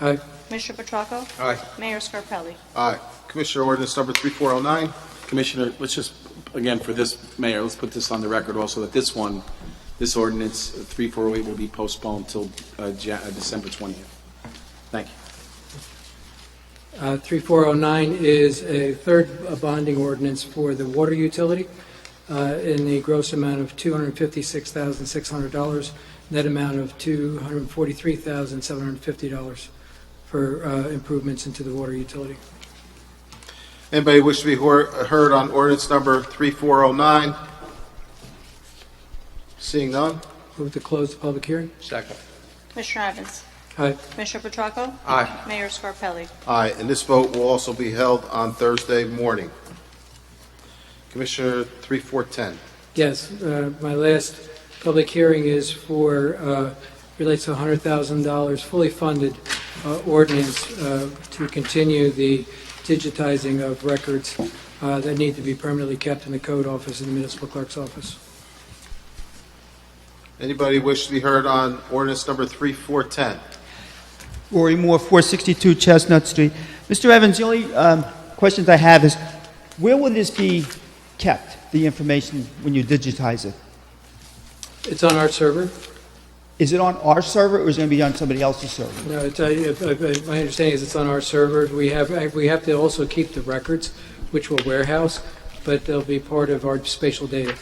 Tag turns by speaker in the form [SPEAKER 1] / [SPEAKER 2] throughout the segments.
[SPEAKER 1] Aye.
[SPEAKER 2] Commissioner Petracco?
[SPEAKER 3] Aye.
[SPEAKER 2] Mayor Scarpelli?
[SPEAKER 3] Aye. Commissioner ordinance number 3409.
[SPEAKER 4] Commissioner, let's just, again, for this, Mayor, let's put this on the record also, that this one, this ordinance 3408 will be postponed till uh, Ja- uh, December 20th. Thank you.
[SPEAKER 1] Uh, 3409 is a third uh, bonding ordinance for the water utility uh, in the gross amount of $256,600, net amount of $243,750 for uh, improvements into the water utility.
[SPEAKER 3] Anybody wish to be hear- heard on ordinance number 3409? Seeing none?
[SPEAKER 1] Move to close the public hearing.
[SPEAKER 3] Second.
[SPEAKER 2] Commissioner Evans?
[SPEAKER 1] Aye.
[SPEAKER 2] Commissioner Petracco?
[SPEAKER 3] Aye.
[SPEAKER 2] Mayor Scarpelli?
[SPEAKER 3] Aye, and this vote will also be held on Thursday morning. Commissioner 3410.
[SPEAKER 1] Yes, uh, my last public hearing is for, uh, relates to $100,000 fully funded uh, ordinance uh, to continue the digitizing of records uh, that need to be permanently kept in the code office and the municipal clerk's office.
[SPEAKER 3] Anybody wish to be heard on ordinance number 3410?
[SPEAKER 5] Rory Moore, 462 Chestnut Street. Mr. Evans, the only um, questions I have is, where will this be kept, the information, when you digitize it?
[SPEAKER 1] It's on our server.
[SPEAKER 5] Is it on our server, or is it going to be on somebody else's server?
[SPEAKER 1] No, it's, uh, if- if- my understanding is it's on our server. We have, we have to also keep the records, which will warehouse, but they'll be part of our spatial data.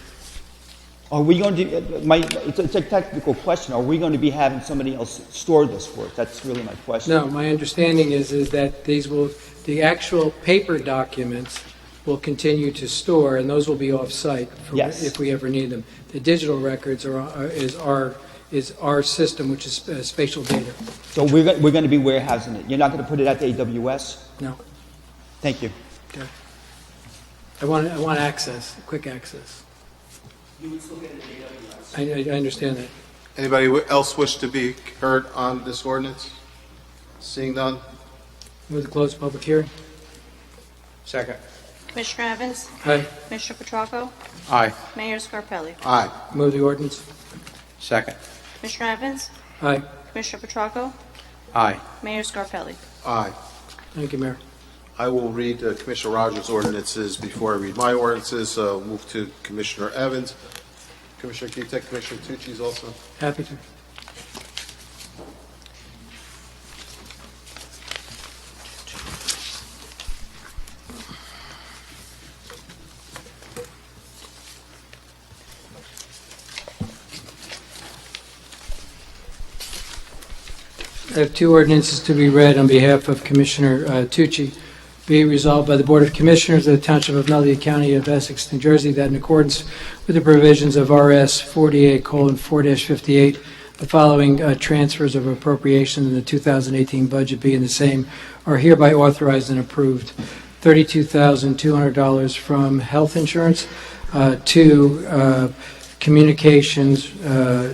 [SPEAKER 5] Are we going to, uh, my, it's a it's a technical question, are we going to be having somebody else store this for us? That's really my question.
[SPEAKER 1] No, my understanding is, is that these will, the actual paper documents will continue to store, and those will be off-site for-
[SPEAKER 5] Yes.
[SPEAKER 1] if we ever need them. The digital records are, are- is our, is our system, which is uh, spatial data.
[SPEAKER 5] So we're, go- we're going to be warehousing it? You're not going to put it out to AWS?
[SPEAKER 1] No,
[SPEAKER 5] Thank you.
[SPEAKER 1] okay. I want, I want access, quick access. You would still get I, I understand that.
[SPEAKER 3] Anybody wi- else wish to be heard on this ordinance? Seeing none?
[SPEAKER 1] Move to close the public hearing.
[SPEAKER 3] Second.
[SPEAKER 2] Commissioner Evans?
[SPEAKER 1] Aye.
[SPEAKER 2] Commissioner Petracco?
[SPEAKER 4] Aye.
[SPEAKER 2] Mayor Scarpelli?
[SPEAKER 3] Aye.
[SPEAKER 1] Move the ordinance.
[SPEAKER 4] Second.
[SPEAKER 2] Commissioner Evans?
[SPEAKER 1] Aye.
[SPEAKER 2] Commissioner Petracco?
[SPEAKER 4] Aye.
[SPEAKER 2] Mayor Scarpelli?
[SPEAKER 3] Aye.
[SPEAKER 1] Thank you, Mayor.
[SPEAKER 3] I will read uh, Commissioner Rogers' ordinances before I read my ordinances. Uh, Move to Commissioner Evans. Commissioner, can you take Commissioner Tucci's also?
[SPEAKER 1] Happy to. I have two ordinances to be read on behalf of Commissioner uh, Tucci. Be it resolved by the Board of Commissioners of the Township of Nutley County of Essex, New Jersey, that in accordance with the provisions of RS 48:4-58, the following uh, transfers of appropriation in the 2018 budget being the same are hereby authorized and approved. $32,200 from health insurance uh, to uh, communications uh,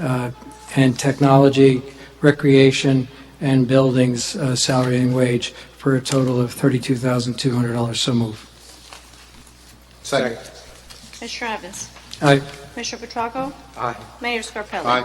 [SPEAKER 1] uh, and technology, recreation, and buildings uh, salary and wage for a total of $32,200. So move.
[SPEAKER 3] Second.
[SPEAKER 2] Commissioner Evans?
[SPEAKER 1] Aye.
[SPEAKER 2] Commissioner Petracco?
[SPEAKER 3] Aye.
[SPEAKER 2] Mayor Scarpelli?
[SPEAKER 3] Aye.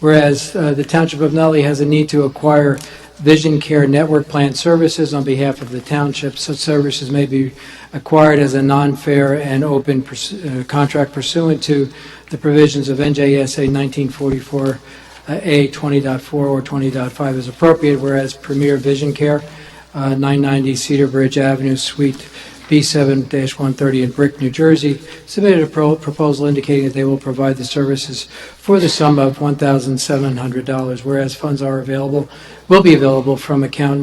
[SPEAKER 1] Whereas uh, the Township of Nutley has a need to acquire Vision Care Network Plan Services on behalf of the township. Such services may be acquired as a non-fair and open pursu- uh, contract pursuant to the provisions of NJSA 1944A 20.4 or 20.5 as appropriate, whereas Premier Vision Care, uh, 990 Cedar Bridge Avenue, Suite B7-130 in Brick, New Jersey, submitted a pro- proposal indicating that they will provide the services for the sum of $1,700, whereas funds are available, will be available from account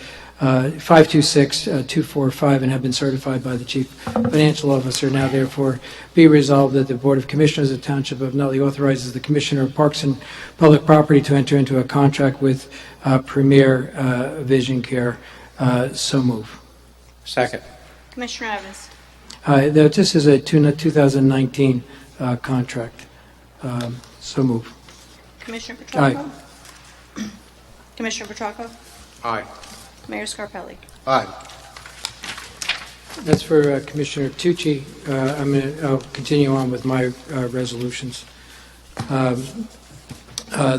[SPEAKER 1] uh, 901-526-245 and have been certified by the Chief Financial Officer. Now therefore be resolved that the Board of Commissioners of the Township of Nutley authorizes the Commissioner of Parks and Public Property to enter into a contract with uh, Premier uh, Vision Care. Uh, So move.
[SPEAKER 4] Second.
[SPEAKER 2] Commissioner Evans?
[SPEAKER 1] Hi, th- Uh, this is a two- 2019 uh, contract. Um, So move.
[SPEAKER 2] Commissioner Petracco? Commissioner Petracco?
[SPEAKER 3] Aye.
[SPEAKER 2] Mayor Scarpelli?
[SPEAKER 3] Aye.
[SPEAKER 1] That's for uh, Commissioner Tucci. Uh, I'm going to, I'll continue on with my uh, resolutions. Um, uh,